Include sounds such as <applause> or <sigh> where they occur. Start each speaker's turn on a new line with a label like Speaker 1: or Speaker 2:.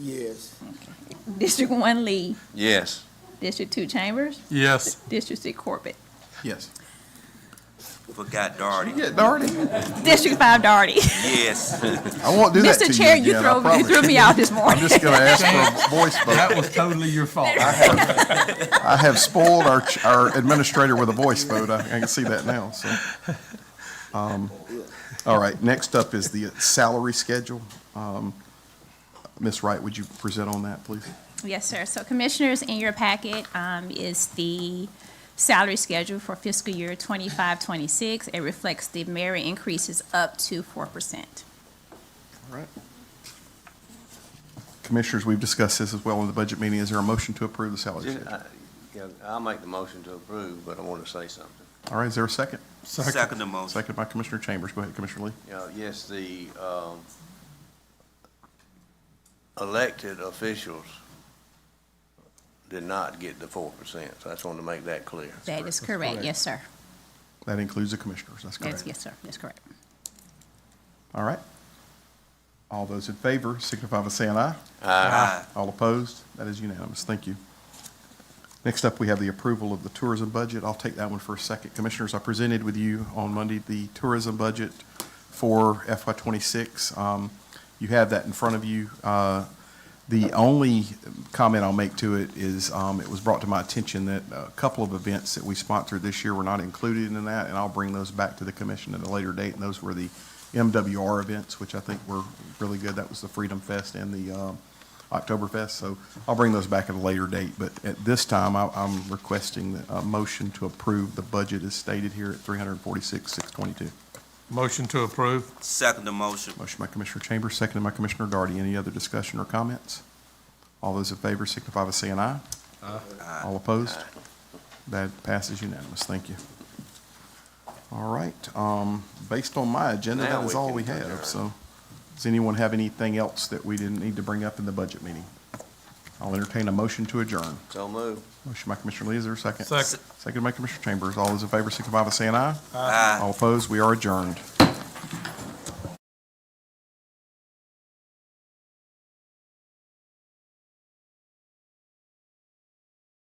Speaker 1: Yes.
Speaker 2: District one, Lee.
Speaker 3: Yes.
Speaker 2: District two, Chambers.
Speaker 4: Yes.
Speaker 2: District six, Corbett.
Speaker 4: Yes.
Speaker 3: Forgot Darty.
Speaker 4: Yeah, Darty.
Speaker 2: District five, Darty.
Speaker 3: Yes.
Speaker 5: I won't do that to you
Speaker 2: Mr. Chair, you
Speaker 5: again, I
Speaker 2: throw, you
Speaker 5: promise.
Speaker 2: threw me out this morning.
Speaker 5: <laughs> I'm just going to ask for
Speaker 2: <laughs>
Speaker 5: a voice
Speaker 4: That
Speaker 5: vote.
Speaker 4: was totally your fault.
Speaker 5: I have spoiled our, ch- our administrator with a voice vote. I, I can see that now, so. Um, All right, next up is the salary schedule. Um, Ms. Wright, would you present on that, please?
Speaker 2: Yes, sir. So commissioners, in your packet um, is the salary schedule for fiscal year 25-26. It reflects the merit increases up to four percent.
Speaker 5: All right. Commissioners, we've discussed this as well in the budget meeting. Is there a motion to approve the salary
Speaker 6: Just,
Speaker 5: schedule?
Speaker 6: I- yeah, I'll make the motion to approve, but I want to say something.
Speaker 5: All right, is there a second?
Speaker 3: Second the motion.
Speaker 5: Second by Commissioner Chambers. Go ahead, Commissioner Lee.
Speaker 6: You know, yes, the um, elected officials did not get the four percent, so I just wanted to make that clear.
Speaker 2: That is correct. Yes, sir.
Speaker 5: That includes the commissioners, that's correct.
Speaker 2: That's, yes, sir. That's correct.
Speaker 5: All right. All those in favor signify by saying aye.
Speaker 3: Aye.
Speaker 5: All opposed? That is unanimous. Thank you. Next up, we have the approval of the tourism budget. I'll take that one for a second. Commissioners, I presented with you on Monday the tourism budget for FY '26. Um, You have that in front of you. Uh, The only comment I'll make to it is, um, it was brought to my attention that a couple of events that we sponsored this year were not included in that, and I'll bring those back to the commission at a later date. And those were the MWR events, which I think were really good. That was the Freedom Fest and the um, Oktoberfest, so I'll bring those back at a later date. But at this time, I- I'm requesting that a motion to approve the budget as stated here at 346,622.
Speaker 4: Motion to approve.
Speaker 3: Second the motion.
Speaker 5: Motion by Commissioner Chambers, seconded by Commissioner Darty. Any other discussion or comments? All those in favor signify by saying aye.
Speaker 3: Aye.
Speaker 5: All opposed? That passes unanimous. Thank you. All right, um, based on my agenda,
Speaker 6: Now
Speaker 5: that is
Speaker 6: we
Speaker 5: all
Speaker 6: can
Speaker 5: we have.
Speaker 6: adjourn.
Speaker 5: So, does anyone have anything else that we didn't need to bring up in the budget meeting? I'll entertain a motion to adjourn.
Speaker 6: So move.
Speaker 5: Motion by Commissioner Lee, is there a second?
Speaker 4: Second.
Speaker 5: Second by Commissioner Chambers. All those in favor signify by saying aye.
Speaker 3: Aye.
Speaker 5: All opposed, we are adjourned.